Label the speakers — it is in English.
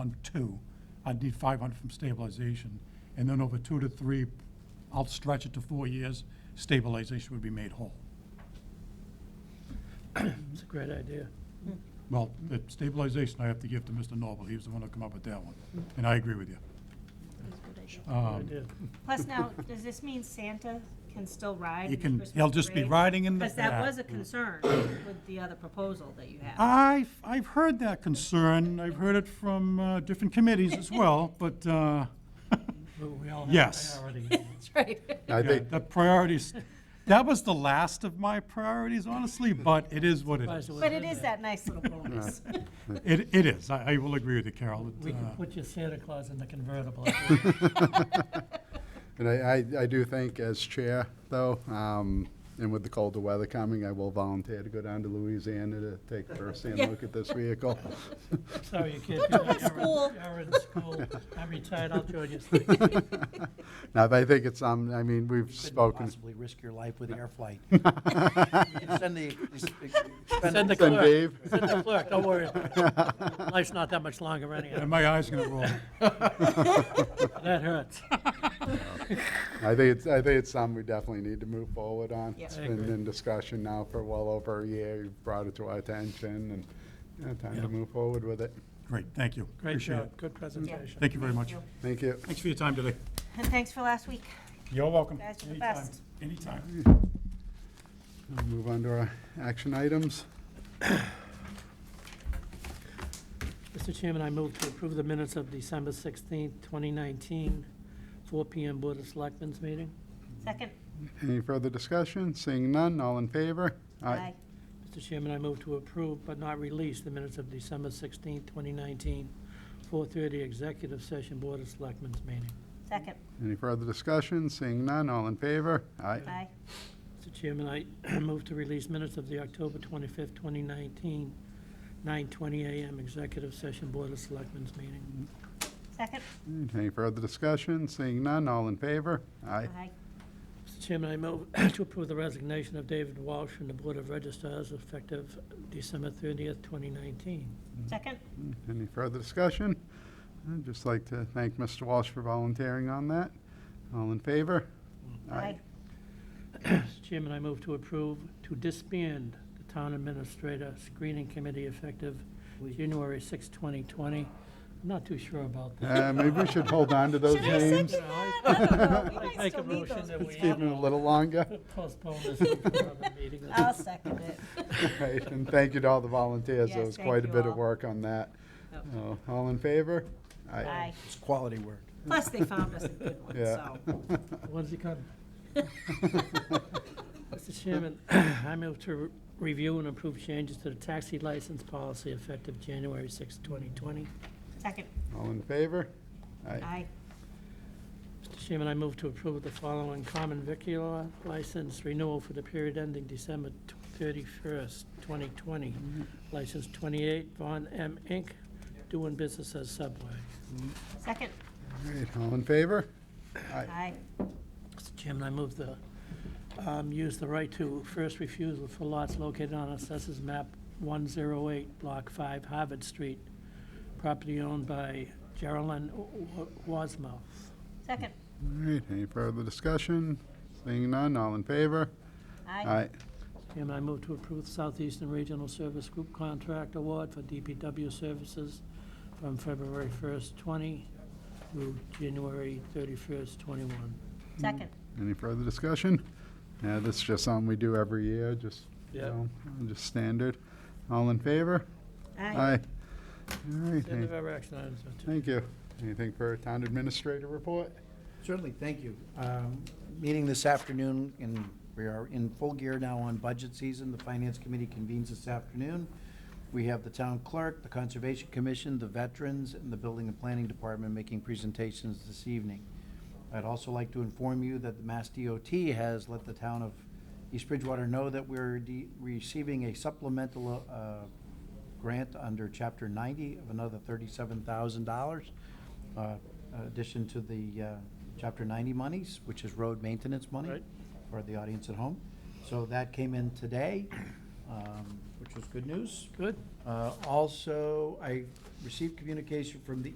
Speaker 1: on two, I'd need five hundred from stabilization. And then over two to three, I'll stretch it to four years, stabilization would be made whole.
Speaker 2: It's a great idea.
Speaker 1: Well, the stabilization I have to give to Mr. Noble, he was the one who come up with that one, and I agree with you.
Speaker 3: That's a good idea.
Speaker 2: Good
Speaker 1: Um,
Speaker 2: idea.
Speaker 3: Plus now, does this mean Santa can still ride?
Speaker 1: He
Speaker 3: in the
Speaker 1: can-
Speaker 3: Christmas
Speaker 1: he'll just be
Speaker 3: parade?
Speaker 1: riding in the
Speaker 3: Because that
Speaker 1: back. Uh,
Speaker 3: was a concern with the other proposal that you had.
Speaker 1: I've, I've heard that concern, I've heard it from uh, different committees as well, but uh,
Speaker 2: Well, We all have
Speaker 1: Yes.
Speaker 2: priorities.
Speaker 3: That's right.
Speaker 4: I
Speaker 1: yeah,
Speaker 4: think,
Speaker 1: the priorities, that was the last of my priorities, honestly, but it is what it
Speaker 2: Surprised
Speaker 1: is.
Speaker 2: it
Speaker 3: But
Speaker 2: wasn't
Speaker 3: it
Speaker 2: in
Speaker 3: is
Speaker 2: there.
Speaker 3: that nice little bonus.
Speaker 1: It, it is, I, I will agree with you, Carol. it,
Speaker 2: We
Speaker 1: uh,
Speaker 2: could put your Santa Claus in the convertible.
Speaker 4: and I, I, I do think as chair, though, um, and with the colder weather coming, I will volunteer to go down to Louisiana to take a first-hand
Speaker 3: Yeah.
Speaker 4: look at this vehicle.
Speaker 2: Sorry, you can't do that. You're in-
Speaker 3: school.
Speaker 2: You're in school. I'm retired, I'll join you.
Speaker 4: Now, but I think it's, um, I mean, we've
Speaker 5: couldn't
Speaker 4: spoken.
Speaker 5: possibly risk your life with air flight. You can Send the, spend
Speaker 2: Send the
Speaker 4: Send
Speaker 2: clerk,
Speaker 4: Dave.
Speaker 2: send the clerk, don't worry. Life's not that much longer anyhow.
Speaker 1: And my eyes gonna roll.
Speaker 2: That hurts.
Speaker 4: I think it's, I think it's something we definitely need to move forward on.
Speaker 3: Yes.
Speaker 4: It's
Speaker 2: I
Speaker 4: been
Speaker 2: agree.
Speaker 4: in discussion now for well over a year. You've brought it to our attention and, you know, time
Speaker 2: Yeah.
Speaker 4: to move forward with it.
Speaker 1: Great, thank you.
Speaker 2: Great
Speaker 1: Appreciate
Speaker 2: job,
Speaker 1: it.
Speaker 2: good presentation.
Speaker 1: Thank you very much.
Speaker 4: Thank you.
Speaker 1: Thanks for your time today.
Speaker 3: And thanks for last week.
Speaker 1: You're welcome.
Speaker 3: Guys, you're the
Speaker 1: Anytime.
Speaker 3: best.
Speaker 1: Anytime.
Speaker 4: We'll Move on to our action items.
Speaker 2: Mr. Chairman, I move to approve the minutes of December 16th, 2019, 4 PM Board of Selectmen's meeting.
Speaker 3: Second?
Speaker 4: Any further discussion? Seeing none, all in favor?
Speaker 2: Mr. Chairman, I move to approve but not release the minutes of December 16th, 2019, 4:30 Executive Session Board of Selectmen's meeting.
Speaker 3: Second?
Speaker 4: Any further discussion? Seeing none, all in favor?
Speaker 3: Aye.
Speaker 2: Mr. Chairman, I move to release minutes of the October 25th, 2019, 9:20 a.m. Executive Session Board of Selectmen's meeting.
Speaker 3: Second?
Speaker 4: Any further discussion? Seeing none, all in favor?
Speaker 3: Aye.
Speaker 2: Mr. Chairman, I move to approve the resignation of David Walsh from the Board of Registrars effective December 30th, 2019.
Speaker 3: Second?
Speaker 4: Any further discussion? I'd just like to thank Mr. Walsh for volunteering on that. All in favor?
Speaker 3: Aye.
Speaker 2: Mr. Chairman, I move to approve to disband the Town Administrator Screening Committee effective January 6, 2020. I'm not too sure about that.
Speaker 4: Uh, Maybe we should hold on to those
Speaker 3: Should I
Speaker 4: names.
Speaker 3: second that? I don't know. We
Speaker 2: I'd
Speaker 3: might
Speaker 2: Make a
Speaker 3: still need
Speaker 2: motion
Speaker 3: those.
Speaker 2: that
Speaker 4: Let's keep it
Speaker 2: we
Speaker 4: a little longer.
Speaker 2: postpone this until another meeting.
Speaker 3: I'll second it.
Speaker 4: Right, And thank you to all the volunteers. There
Speaker 3: Yes,
Speaker 4: was
Speaker 3: thank
Speaker 4: quite a
Speaker 3: you
Speaker 4: bit of
Speaker 3: all. Oh.
Speaker 4: work on that. Uh, All in favor?
Speaker 3: Aye.
Speaker 5: It's quality work.
Speaker 3: Plus, they found us a good one,
Speaker 4: Yeah.
Speaker 3: so.
Speaker 2: When's he coming? Mr. Chairman, I move to re- review and approve changes to the taxi license policy effective January 6, 2020.
Speaker 3: Second?
Speaker 4: All in favor?
Speaker 3: Aye.
Speaker 2: Mr. Chairman, I move to approve the following common vicular license renewal for the period ending December tw- 31st, 2020. License 28, Von M. Inc., doing business as Subway.
Speaker 3: Second?
Speaker 4: All right, all in favor?
Speaker 3: Aye.
Speaker 2: Mr. Chairman, I move the, um, use the right to first refusal for lots located on Assessors Map 108, Block 5, Harvard Street, property owned by Geraldine Wa- Wasmouth.
Speaker 3: Second?
Speaker 4: All right, any further discussion? Seeing none, all in favor?
Speaker 3: Aye.
Speaker 2: Chairman, I move to approve Southeastern Regional Service Group Contract Award for DPW Services from February 1st, 20 through January 31st, 21.
Speaker 3: Second?
Speaker 4: Any further discussion? Yeah, this is just something we do every year, just, you
Speaker 2: Yep.
Speaker 4: know, just standard. All in favor?
Speaker 3: Aye.
Speaker 4: All right,
Speaker 2: End of
Speaker 4: hey,
Speaker 2: our action items, Mr. Chairman.
Speaker 4: thank you. Anything for town administrator report?
Speaker 5: Certainly, thank you. Um, Meeting this afternoon, and we are in full gear now on budget season. The Finance Committee convenes this afternoon. We have the Town Clerk, the Conservation Commission, the Veterans, and the Building and Planning Department making presentations this evening. I'd also like to inform you that the Mass DOT has let the town of East Bridgewater know that we're de- receiving a supplemental uh, grant under Chapter 90 of another $37,000, uh, addition to the uh, Chapter 90 monies, which is road maintenance money
Speaker 2: Right.
Speaker 5: for the audience at home. So that came in today, um, which was good news.
Speaker 2: Good.
Speaker 5: Uh, Also, I received communication from the